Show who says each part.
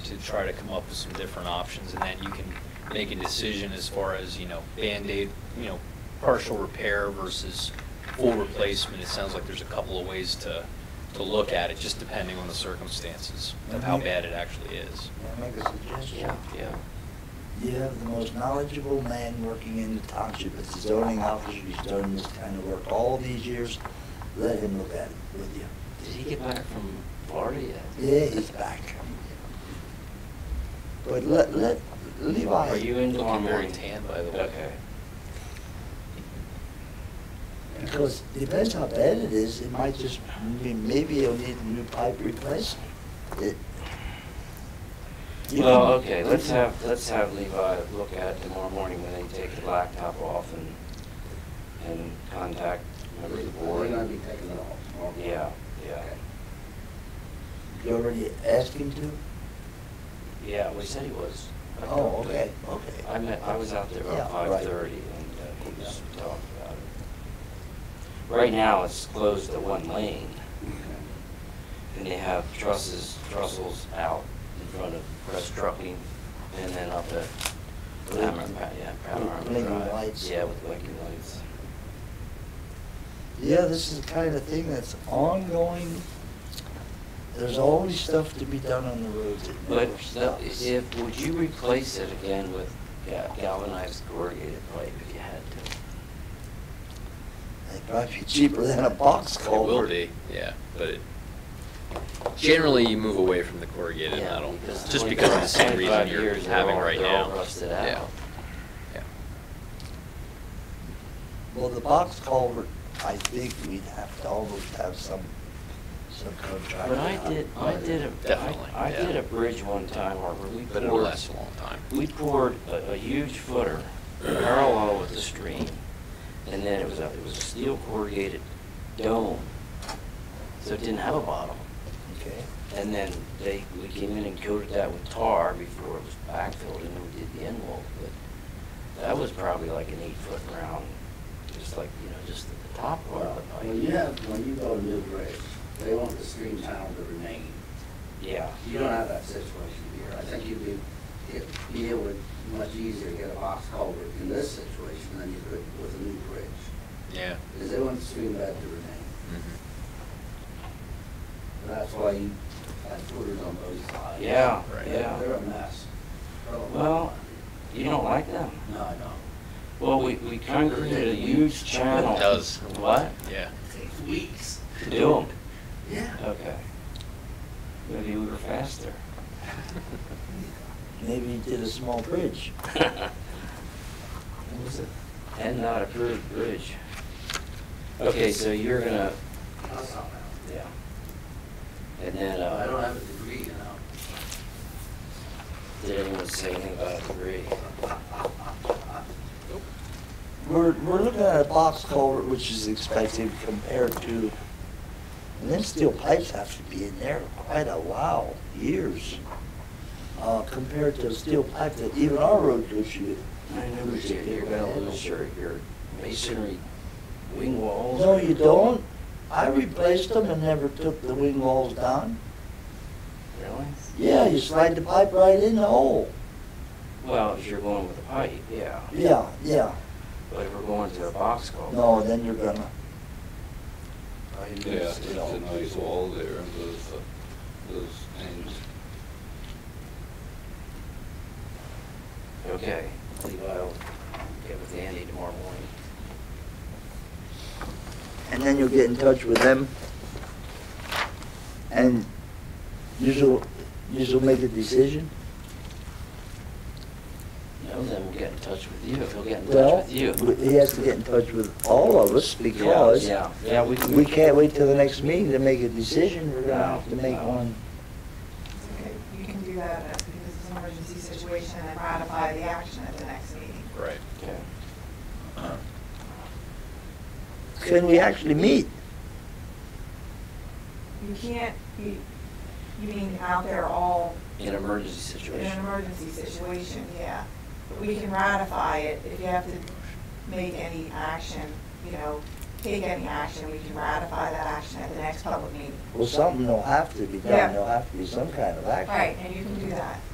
Speaker 1: to try to come up with some different options, and then you can make a decision as far as, you know, Band-Aid, you know, partial repair versus full replacement. It sounds like there's a couple of ways to, to look at it, just depending on the circumstances of how
Speaker 2: Mm-hmm.
Speaker 3: Mhm.
Speaker 1: bad it actually is.
Speaker 3: May I make a suggestion?
Speaker 2: Yeah, yeah.
Speaker 3: You have the most knowledgeable man working in the township, it's a zoning officer, he's done this kind of work all these years, let him look at it with you.
Speaker 2: Did he get back from Florida yet?
Speaker 3: Yeah, he's back. But let, let, Levi.
Speaker 2: Are you in tomorrow
Speaker 1: Looking very
Speaker 2: morning?
Speaker 1: tan, by the way.
Speaker 2: Okay.
Speaker 3: Because depends how bad it is, it might just, be- maybe you'll need a new pipe replaced. It- You
Speaker 2: Well,
Speaker 3: can-
Speaker 2: okay, let's have, let's have Levi look at it tomorrow morning when they take the blacktop off and, and contact members of the
Speaker 4: We're
Speaker 2: board.
Speaker 4: gonna be taking it all tomorrow.
Speaker 2: Yeah, yeah.
Speaker 3: You already asked him to?
Speaker 2: Yeah, we said he was. I
Speaker 3: Oh,
Speaker 2: talked to-
Speaker 3: okay, okay.
Speaker 2: I met, I was out there
Speaker 3: Yeah,
Speaker 2: about
Speaker 3: right.
Speaker 2: five thirty and uh, he was talking about it. Right now, it's closed to one lane
Speaker 3: Mm-hmm.
Speaker 4: Okay.
Speaker 2: and they have trusses, trussels out in front of Press Trucking and then up at Palmer, yeah, Palmer.
Speaker 3: With blinking
Speaker 2: Drive.
Speaker 3: lights.
Speaker 2: Yeah, with blinking lights.
Speaker 3: Yeah, this is the kind of thing that's ongoing. There's always stuff to be done on the roads. It
Speaker 2: But
Speaker 3: never
Speaker 2: the-
Speaker 3: stops.
Speaker 2: if, would you replace it again with ga- galvanized corrugated pipe if you had to?
Speaker 3: It might be cheaper than a box
Speaker 1: It will
Speaker 3: culvert.
Speaker 1: be, yeah, but it- generally you move away from the corrugated
Speaker 2: Yeah,
Speaker 1: metal,
Speaker 2: because
Speaker 1: just
Speaker 2: twenty-
Speaker 1: because of the same
Speaker 2: 25
Speaker 1: reason you're
Speaker 2: years, they're
Speaker 1: having
Speaker 2: all-
Speaker 1: right
Speaker 2: they're all
Speaker 1: now.
Speaker 2: rusted
Speaker 1: Yeah.
Speaker 2: out.
Speaker 1: Yeah.
Speaker 3: Well, the box culvert, I think we'd have to almost have some, some contract.
Speaker 2: But I did, I did a,
Speaker 1: Definitely,
Speaker 2: I- I
Speaker 1: yeah.
Speaker 2: did a bridge one time where we
Speaker 1: But it'll
Speaker 2: poured,
Speaker 1: last a long time.
Speaker 2: we poured a, a huge footer parallel with the stream. And then it was a, it was a steel corrugated dome, so it didn't have a bottom.
Speaker 3: Okay.
Speaker 2: And then they, we came in and coated that with tar before it was backfilled and then we did the end wall. But that was probably like an eight foot round, just like, you know, just the top part
Speaker 4: Well,
Speaker 2: of the
Speaker 4: when you
Speaker 2: pipe.
Speaker 4: have, when you go to New Bridge, they want the stream channel to remain.
Speaker 2: Yeah.
Speaker 4: You don't have that situation here. I think you'd be, it- be able to, much easier to get a box culvert in this situation than you could with a new bridge.
Speaker 1: Yeah.
Speaker 4: Because they want the stream bed to remain.
Speaker 1: Mhm.
Speaker 4: And that's why you had footers on both sides.
Speaker 2: Yeah,
Speaker 1: Right.
Speaker 4: They're
Speaker 2: yeah.
Speaker 4: they're a mess. They're a
Speaker 2: Well,
Speaker 4: lot.
Speaker 2: you don't like them?
Speaker 4: No, I don't.
Speaker 2: Well, we, we concreted a huge channel.
Speaker 1: It does.
Speaker 2: What?
Speaker 1: Yeah.
Speaker 4: It takes weeks.
Speaker 2: To do
Speaker 4: Yeah.
Speaker 2: them? Okay. Maybe we were faster.
Speaker 3: Maybe you did a small bridge.
Speaker 2: What was it? And not approved bridge. Okay, so you're gonna,
Speaker 4: I'll stop
Speaker 2: yeah. And then,
Speaker 4: now. I don't
Speaker 2: uh,
Speaker 4: have a degree, you know.
Speaker 2: did anyone say anything about the bridge?
Speaker 3: We're, we're looking at a box culvert, which is expected compared to, and them steel pipes have to be in there quite a while, years, uh, compared to a steel pipe that even our road goes through.
Speaker 2: I know you're, you're gonna lose your, your masonry wing walls.
Speaker 3: No, you don't. I replaced them and never took the wing walls down.
Speaker 2: Really?
Speaker 3: Yeah, you slide the pipe right in the hole.
Speaker 2: Well, if you're going with a pipe, yeah.
Speaker 3: Yeah, yeah.
Speaker 2: But if we're going to a box culvert.
Speaker 3: No, then you're gonna.
Speaker 5: Yeah, it's a nice wall there, and those, uh, those things.
Speaker 2: Okay, Levi will get with Andy tomorrow morning.
Speaker 3: and then you'll get in touch with them. And you'll, you'll make a decision.
Speaker 2: No, then we'll get in touch with you, he'll get in
Speaker 3: Well,
Speaker 2: touch with you.
Speaker 3: He has to get in touch with all of us
Speaker 2: Yeah,
Speaker 3: because
Speaker 2: Yeah, yeah, we can.
Speaker 3: we can't wait till the next meeting to make a decision. We're gonna have to
Speaker 2: No,
Speaker 3: make
Speaker 2: no.
Speaker 3: one.
Speaker 6: Okay, You can do that uh, because it's an emergency situation and ratify the action at the next meeting.
Speaker 1: Right.
Speaker 2: Okay.
Speaker 3: Can we actually meet?
Speaker 6: You can't, you, you mean out there all
Speaker 2: In an emergency
Speaker 6: in an
Speaker 2: situation.
Speaker 6: emergency situation, yeah. But we can ratify it if you have to make any action, you know, take any action, we can ratify that action at the next public meeting.
Speaker 3: Well, something will have to be
Speaker 6: Yeah.
Speaker 3: done, there'll have to be some kind of action.
Speaker 6: Right, and you can do that.